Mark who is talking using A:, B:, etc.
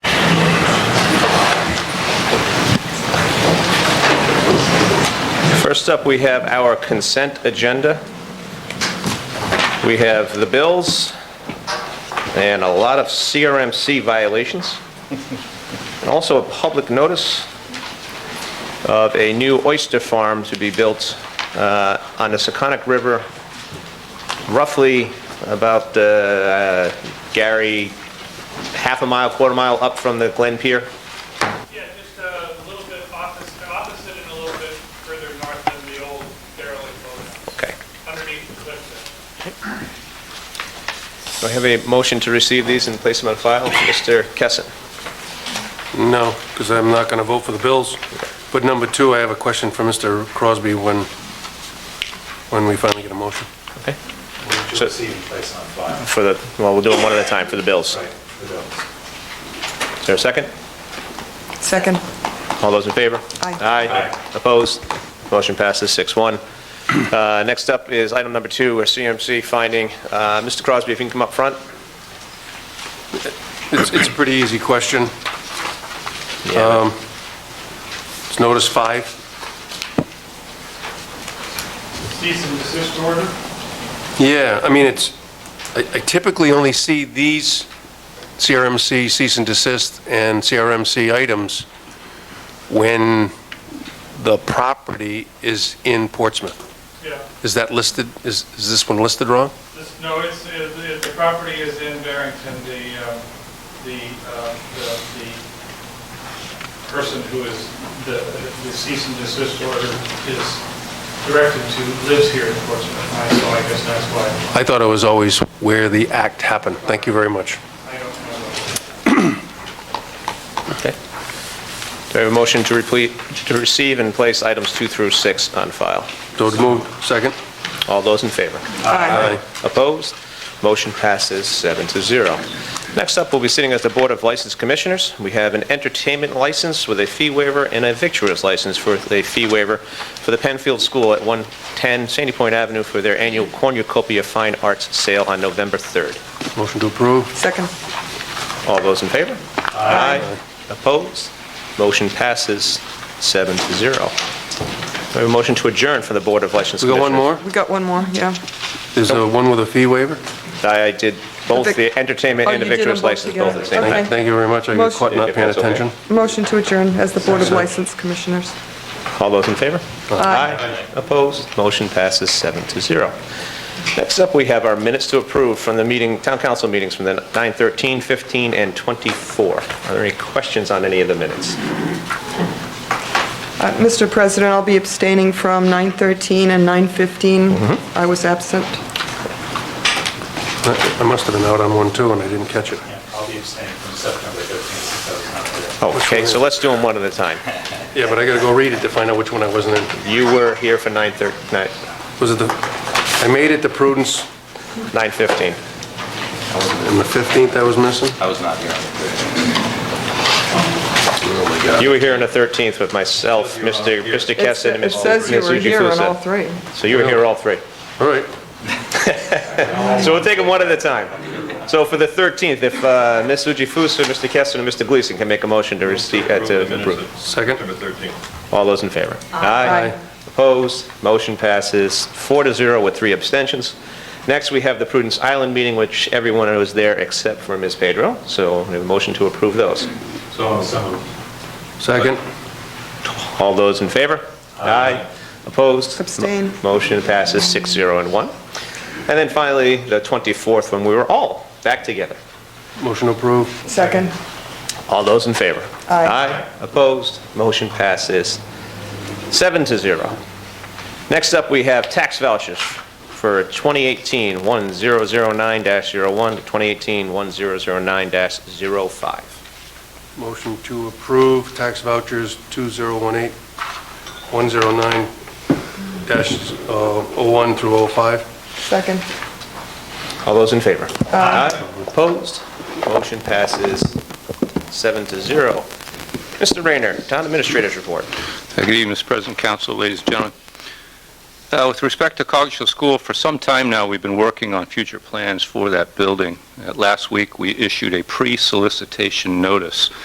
A: First up, we have our consent agenda. We have the bills and a lot of CRMC violations. And also a public notice of a new oyster farm to be built uh, on the Seconic River, roughly about, uh, Gary, half a mile, quarter mile up from the Glen Pier.
B: Yeah, just uh, a little bit opposite, opposite and a little bit further north than the old derelict boathouse,
A: Okay.
B: underneath the cliff there.
A: Do I have a motion to receive these and place them on file? Mr. Kessin?
C: No, because I'm not going to vote for the bills. But number two, I have a question for Mr. Crosby when, when we finally get a motion.
D: Would you receive and place on file?
A: For the, well, we'll do them one at a time for the bills.
D: Right, the bills.
A: Is there a second?
E: Second.
A: All those in favor?
E: Aye.
A: Aye. Opposed? Motion passes 6-1. Uh, Next up is item number two, our CMC finding. Uh, Mr. Crosby, if you can come up front.
C: It's, it's a pretty easy question. Um, It's notice five.
B: Cease and desist order?
C: Yeah, I mean, it's, I I typically only see these CRMC cease and desist and CRMC items when the property is in Portsmouth.
B: Yeah,
C: Is that listed, is, is this one listed wrong?
B: this, no, it's, uh, the the property is in Barrington, the, uh, the, uh, the- the person who is, the the cease and desist order is directed to, lives here in Portsmouth, I- so I guess that's why,
C: I thought it was always where the act happened. Thank you very much.
B: I don't know.
A: Okay. Do I have a motion to replete, to receive and place items two through six on file?
C: So moved. Second?
A: All those in favor?
C: Aye.
A: Opposed? Motion passes seven to zero. Next up, we'll be sitting as the Board of License Commissioners. We have an entertainment license with a fee waiver and a victuals license for a fee waiver for the Penfield School at 110 Sandy Point Avenue for their annual cornucopia fine arts sale on November 3rd.
C: Motion to approve?
E: Second.
A: All those in favor? Aye. Opposed? Motion passes seven to zero. We have a motion to adjourn for the Board of License
C: We got
A: Commissioners.
C: one more?
E: We got one more, yeah.
C: There's a one with a fee waiver?
A: I I did both
E: Vic-
A: the entertainment
E: Oh,
A: and the
E: you did them
A: victuals
E: both
A: license both at the same
E: together.
A: time.
E: Okay.
C: Thank thank you very much. I got caught not paying attention.
E: Motion to adjourn as the Board of License Commissioners.
A: All those in favor? Aye. Opposed? Motion passes seven to zero. Next up, we have our minutes to approve from the meeting, town council meetings from the 9:13, 15, and 24. Are there any questions on any of the minutes?
E: Uh, Mr. President, I'll be abstaining from 9:13 and 9:15. I was absent.
C: I I must have been out on one too, and I didn't catch it.
D: Yeah, I'll be abstaining from September 13th, since I was not there.
A: Oh, okay, so let's do them one at a time.
C: Yeah, but I got to go read it to find out which one I wasn't in.
A: You were here for 9:13,
C: Was it the, I made it to Prudence,
A: 9:15.
C: and the 15th I was missing?
D: I was not here on the 13th.
C: Oh, my God.
A: You were here on the 13th with myself, Mr. Mr.
E: It's-
A: Kessin, and
E: It
A: Mr.
E: says you were
A: Mrs.
E: here on
A: Jukusa.
E: all three.
A: So you were here all three.
C: All right.
A: So we'll take them one at a time. So for the 13th, if uh, Ms. Ujifusa, Mr. Kessin, and Mr. Gleason can make a motion to receive, uh, to approve.
C: Second?
A: All those in favor?
E: Aye.
A: Opposed? Motion passes four to zero with three abstentions. Next, we have the Prudence Island meeting, which everyone was there except for Ms. Pedro, so we have a motion to approve those.
D: So, so
C: Second?
A: All those in favor? Aye. Opposed?
E: Abstain.
A: Mo- Motion passes six, zero, and one. And then finally, the 24th, when we were all back together.
C: Motion to approve?
E: Second.
A: All those in favor?
E: Aye.
A: Opposed? Motion passes seven to zero. Next up, we have tax vouchers for 2018-1009-01 to 2018-1009-05.
C: Motion to approve tax vouchers 2018, 109 dash, uh, 01 through 05.
E: Second.
A: All those in favor? Aye. Opposed? Motion passes seven to zero. Mr. Rayner, Town Administrator's Report.
F: Uh, Good evening, Mr. President, Council, ladies and gentlemen. Uh, With respect to Cogshell School, for some time now, we've been working on future plans for that building. Uh, Last week, we issued a pre-solicitation notice